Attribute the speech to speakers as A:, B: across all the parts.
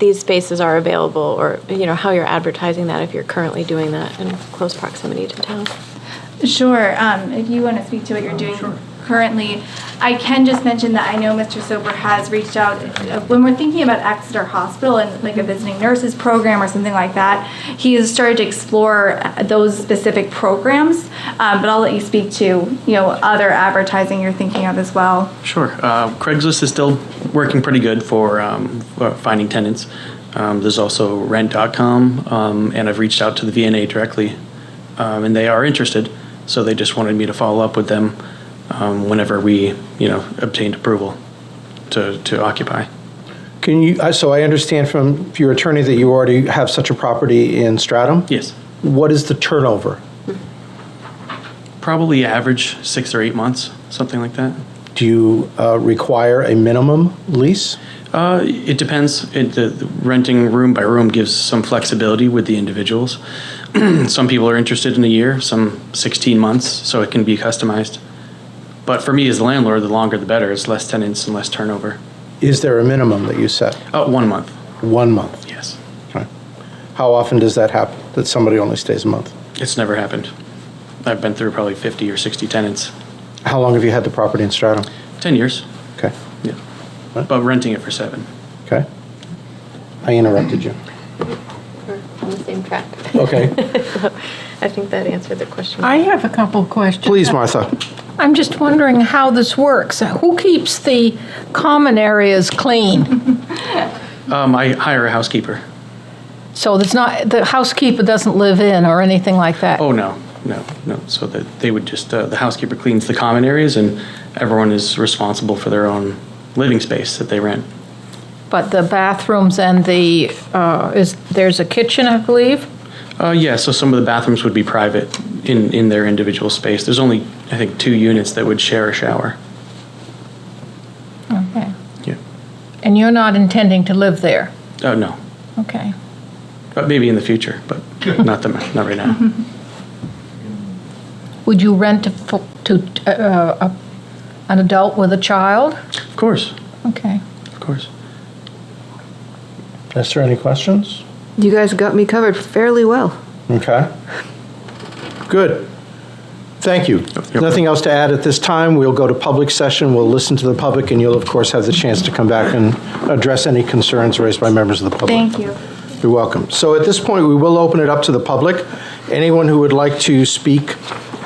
A: these spaces are available, or, you know, how you're advertising that if you're currently doing that in close proximity to town.
B: Sure, um, if you want to speak to what you're doing currently. I can just mention that I know Mr. Sober has reached out, uh, when we're thinking about Exeter Hospital and like a visiting nurses program or something like that, he has started to explore uh, those specific programs, um, but I'll let you speak to, you know, other advertising you're thinking of as well.
C: Sure. Uh, Craigslist is still working pretty good for, um, for finding tenants. Um, there's also rent.com, um, and I've reached out to the VNA directly, um, and they are interested. So they just wanted me to follow up with them um, whenever we, you know, obtained approval to, to occupy.
D: Can you, I- so I understand from your attorney that you already have such a property in Stratham?
C: Yes.
D: What is the turnover?
C: Probably average six or eight months, something like that.
D: Do you uh, require a minimum lease?
C: Uh, it depends. It, the, the renting room by room gives some flexibility with the individuals. some people are interested in a year, some 16 months, so it can be customized. But for me as the landlord, the longer the better. It's less tenants and less turnover.
D: Is there a minimum that you set?
C: Oh, one month.
D: One month?
C: Yes.
D: Okay. How often does that happen, that somebody only stays a month?
C: It's never happened. I've been through probably 50 or 60 tenants.
D: How long have you had the property in Stratham?
C: 10 years.
D: Okay,
C: Yeah. But renting it for seven.
D: okay. I interrupted you.
A: We're on the same track.
D: Okay,
A: I think that answered the question.
E: I have a couple questions.
D: please, Martha.
E: I'm just wondering how this works. Who keeps the common areas clean?
C: Um, I hire a housekeeper.
E: So there's not, the housekeeper doesn't live in or anything like that?
C: Oh, no, no, no. So that they would just, uh, the housekeeper cleans the common areas and everyone is responsible for their own living space that they rent.
E: But the bathrooms and the, uh, is, there's a kitchen, I believe?
C: Uh, yeah, so some of the bathrooms would be private in, in their individual space. There's only, I think, two units that would share a shower.
E: Okay.
C: Yeah.
E: And you're not intending to live there?
C: Oh, no.
E: Okay.
C: But maybe in the future, but not the, not right now.
E: Would you rent to fo- to, uh, uh, an adult with a child?
C: Of course,
E: Okay.
C: of course.
D: Is there any questions?
F: You guys got me covered fairly well.
D: Okay. Good. Thank you.
C: Yep.
D: Nothing else to add at this time. We'll go to public session, we'll listen to the public, and you'll, of course, have the chance to come back and address any concerns raised by members of the public.
B: Thank you.
D: You're welcome. So at this point, we will open it up to the public. Anyone who would like to speak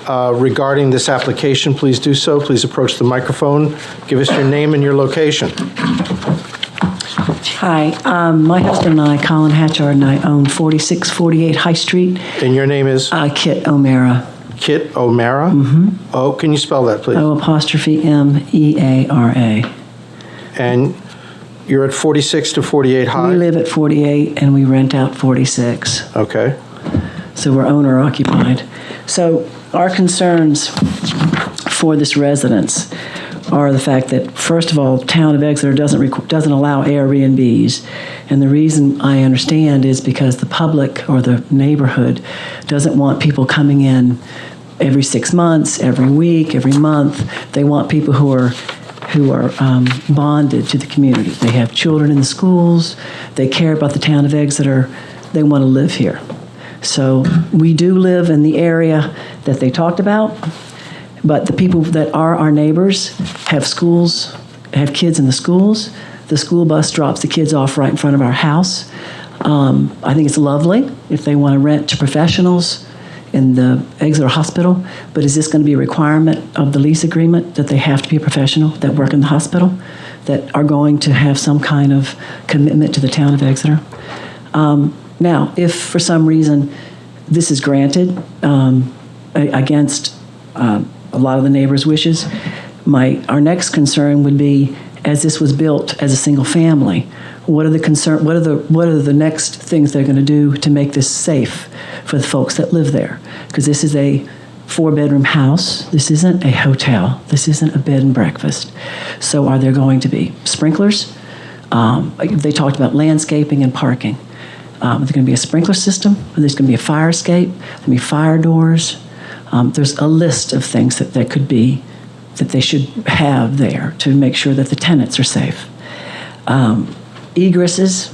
D: uh, regarding this application, please do so. Please approach the microphone. Give us your name and your location.
G: Hi, um, my husband and I, Colin Hatchard, and I own 4648 High Street,
D: And your name is
G: uh, Kit O'Meara,
D: Kit O'Mara? Mm-hmm. Oh, can you spell that, please?
G: O apostrophe M E A R A.
D: And you're at 46 to 48 High?
G: We live at 48 and we rent out 46,
D: Okay.
G: so we're owner occupied. So our concerns for this residence are the fact that, first of all, town of Exeter doesn't requ- doesn't allow Airbnbs, and the reason I understand is because the public or the neighborhood doesn't want people coming in every six months, every week, every month. They want people who are who are um, bonded to the community. They have children in the schools. They care about the town of Exeter. They want to live here. So we do live in the area that they talked about. But the people that are our neighbors have schools, have kids in the schools. The school bus drops the kids off right in front of our house. Um, I think it's lovely if they want to rent to professionals in the Exeter Hospital, but is this going to be a requirement of the lease agreement that they have to be a professional that work in the hospital, that are going to have some kind of commitment to the town of Exeter? Um, now, if for some reason this is granted um, a- against um, a lot of the neighbors' wishes, my our next concern would be as this was built as a single family. What are the concern? What are the what are the next things they're going to do to make this safe for the folks that live there? Because this is a four bedroom house. This isn't a hotel. This isn't a bed and breakfast. So are there going to be sprinklers? Um, they talked about landscaping and parking. Um, there's going to be a sprinkler system. There's going to be a fire escape. There'll be fire doors. Um, there's a list of things that, that could be that they should have there to make sure that the tenants are safe. Um, egresses